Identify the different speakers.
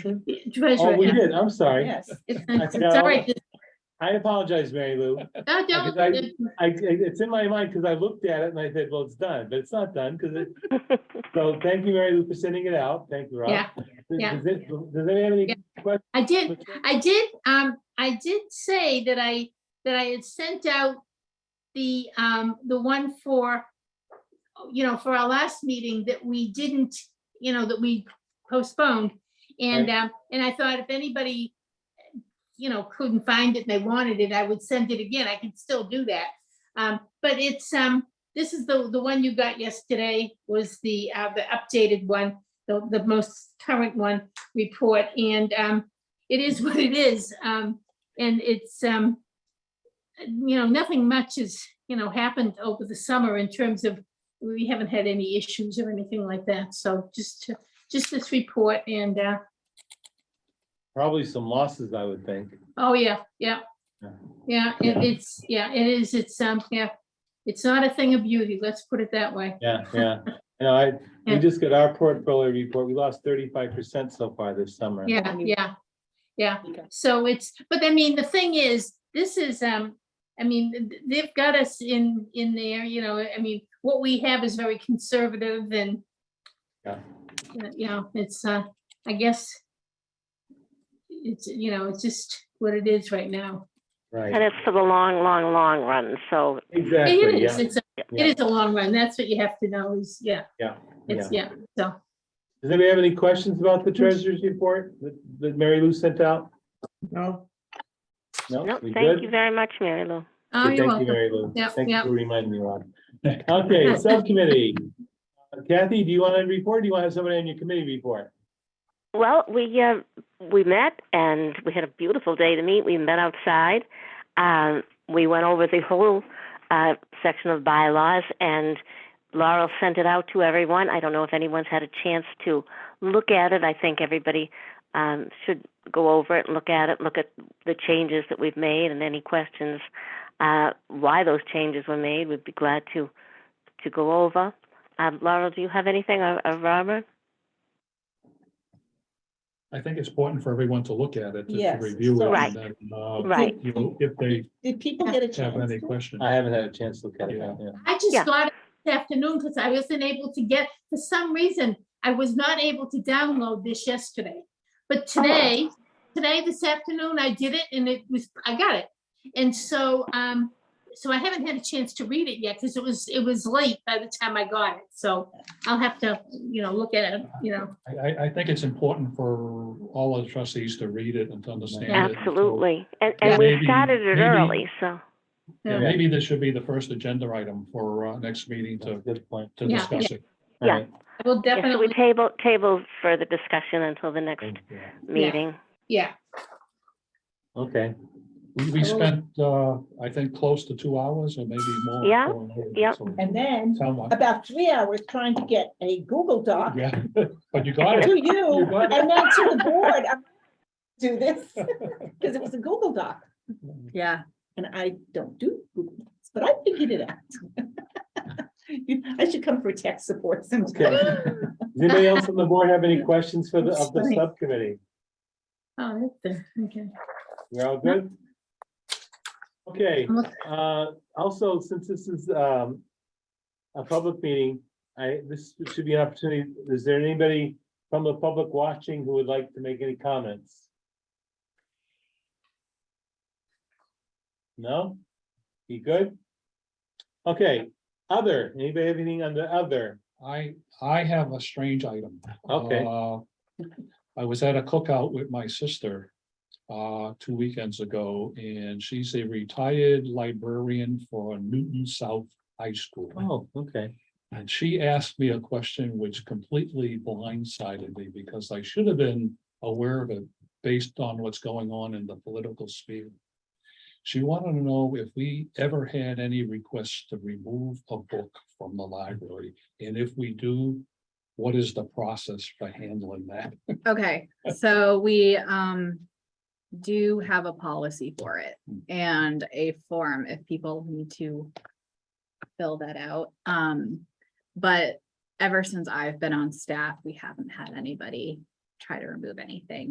Speaker 1: Commissioner?
Speaker 2: Treasurer,
Speaker 1: Oh, we
Speaker 2: yeah.
Speaker 1: did, I'm sorry.
Speaker 3: Yes.
Speaker 2: It's- it's-
Speaker 1: forgot
Speaker 2: it's all right.
Speaker 1: I apologize, Mary Lou.
Speaker 2: No, don't-
Speaker 1: I- I, I- it's in my mind because I looked at it and I said, well, it's done, but it's not done because it. So thank you, Mary Lou, for sending it out. Thank you, Rob.
Speaker 2: Yeah,
Speaker 1: Does-
Speaker 2: yeah.
Speaker 1: Does it- does anyone have any questions?
Speaker 2: I did, I did, um, I did say that I, that I had sent out the, um, the one for, you know, for our last meeting that we didn't, you know, that we postponed. And, um, and I thought if anybody, you know, couldn't find it and they wanted it, I would send it again. I can still do that. Um, but it's, um, this is the, the one you got yesterday was the, uh, the updated one, the, the most current one report. And, um, it is what it is. Um, and it's, um, you know, nothing much has, you know, happened over the summer in terms of, we haven't had any issues or anything like that. So just, to- just this report and, uh,
Speaker 1: Probably some losses, I would think.
Speaker 2: oh, yeah, yeah.
Speaker 1: Yeah.
Speaker 2: Yeah, it, it's, yeah, it is, it's, um, yeah, it's not a thing of beauty, let's put it that way.
Speaker 1: Yeah, yeah. You know, I, we
Speaker 2: Yeah.
Speaker 1: just got our portfolio report. We lost thirty-five percent so far this summer.
Speaker 2: Yeah,
Speaker 3: Only-
Speaker 2: yeah, yeah.
Speaker 3: Okay.
Speaker 2: So it's, but I mean, the thing is, this is, um, I mean, th- th- they've got us in, in there, you know, I mean, what we have is very conservative and
Speaker 1: Yeah.
Speaker 2: uh, you know, it's, uh, I guess it's, you know, it's just what it is right now.
Speaker 4: And
Speaker 1: Right,
Speaker 4: it's for the long, long, long run, so
Speaker 1: exactly,
Speaker 2: It is,
Speaker 1: yeah.
Speaker 2: it's, a-
Speaker 1: yeah.
Speaker 2: it is a long run. That's what you have to know is, yeah.
Speaker 1: Yeah,
Speaker 2: It's, yeah, so,
Speaker 1: Does anybody have any questions about the treasurer's report that, that Mary Lou sent out?
Speaker 3: No.
Speaker 1: No,
Speaker 4: no,
Speaker 1: we
Speaker 4: thank
Speaker 1: good?
Speaker 4: you very much, Mary Lou.
Speaker 2: oh,
Speaker 1: Good,
Speaker 2: you're
Speaker 1: Thank you,
Speaker 2: welcome.
Speaker 1: Mary Lou.
Speaker 2: Yep,
Speaker 1: Thank you
Speaker 2: yep.
Speaker 1: for reminding me, Rob. Okay, subcommittee. Uh, Kathy, do you want to report? or Do you want to have somebody on your committee report?
Speaker 4: Well, we, uh, we met and we had a beautiful day to meet. We met outside. Um, we went over the whole, uh, section of bylaws and Laurel sent it out to everyone. I don't know if anyone's had a chance to look at it. I think everybody, um, should go over it, look at it, look at the changes that we've made and any questions, uh, why those changes were made. We'd be glad to, to go over. Um, Laurel, do you have anything or, or Robert?
Speaker 5: I think it's important for everyone to look at it, to- to
Speaker 3: Yes,
Speaker 5: review it.
Speaker 4: Right.
Speaker 5: and then, uh,
Speaker 4: Right.
Speaker 5: You know, if they
Speaker 3: Did people get a chance?
Speaker 5: have any
Speaker 3: to-
Speaker 5: questions.
Speaker 1: I haven't had a chance to look at it.
Speaker 5: Yeah.
Speaker 1: yet, yeah.
Speaker 2: I just
Speaker 4: Yeah.
Speaker 2: got it this afternoon because I wasn't able to get, for some reason, I was not able to download this yesterday.
Speaker 4: Oh.
Speaker 2: But today, today, this afternoon, I did it and it was, I got it. And so, um, so I haven't had a chance to read it yet because it was, it was late by the time I got it. So I'll have to, you know, look at it, you know.
Speaker 5: I, I, I think it's important for all the trustees to read it and to understand it.
Speaker 4: Absolutely. And,
Speaker 5: Yeah,
Speaker 4: and we
Speaker 5: maybe-
Speaker 4: started it
Speaker 5: maybe-
Speaker 4: early, so,
Speaker 5: So, yeah,
Speaker 2: Yeah.
Speaker 5: Maybe this should be the first agenda item for, uh, next meeting
Speaker 1: That's a
Speaker 5: to,
Speaker 1: good point.
Speaker 5: to
Speaker 2: Yeah,
Speaker 5: discuss it.
Speaker 1: All right.
Speaker 2: I will
Speaker 4: yeah, so we
Speaker 2: definitely,
Speaker 4: table, table for the discussion until the next
Speaker 1: Thank you.
Speaker 4: meeting.
Speaker 2: yeah,
Speaker 1: Okay,
Speaker 5: We, we spent, uh, I think, close to two hours or maybe more.
Speaker 4: Yeah,
Speaker 5: for-
Speaker 4: yeah.
Speaker 5: so-
Speaker 3: And then
Speaker 5: Tell me.
Speaker 3: about three hours trying to get a Google Doc to
Speaker 5: Yeah, but you got it.
Speaker 3: you
Speaker 5: got it.
Speaker 3: and then to the board. I'm, Do this, because it was a Google Doc. Yeah. And I don't do, Google Docs, but I figured it out. You- I should come for tech support sometime.
Speaker 1: okay. Does anybody else on the board have any questions for the, of the
Speaker 2: That's funny.
Speaker 1: subcommittee?
Speaker 2: oh, that's the- okay.
Speaker 1: We're all good? Okay,
Speaker 2: I'm look-
Speaker 1: uh, also, since this is, um, a public meeting, I, this should be an opportunity, is there anybody from the public watching who would like to make any comments? No? You good? Okay, other, anybody have anything on the other?
Speaker 5: I, I have a strange item.
Speaker 1: Okay.
Speaker 5: Uh, I was at a cookout with my sister uh, two weekends ago, and she's a retired librarian for Newton South High School.
Speaker 1: Oh, okay.
Speaker 5: And she asked me a question which completely blindsided me because I should have been aware of it based on what's going on in the political sphere. She wanted to know if we ever had any requests to remove a book from the library, and if we do, what is the process for handling that?
Speaker 6: Okay, so we um do have a policy for it and a form if people need to fill that out. Um, but ever since I've been on staff, we haven't had anybody try to remove anything.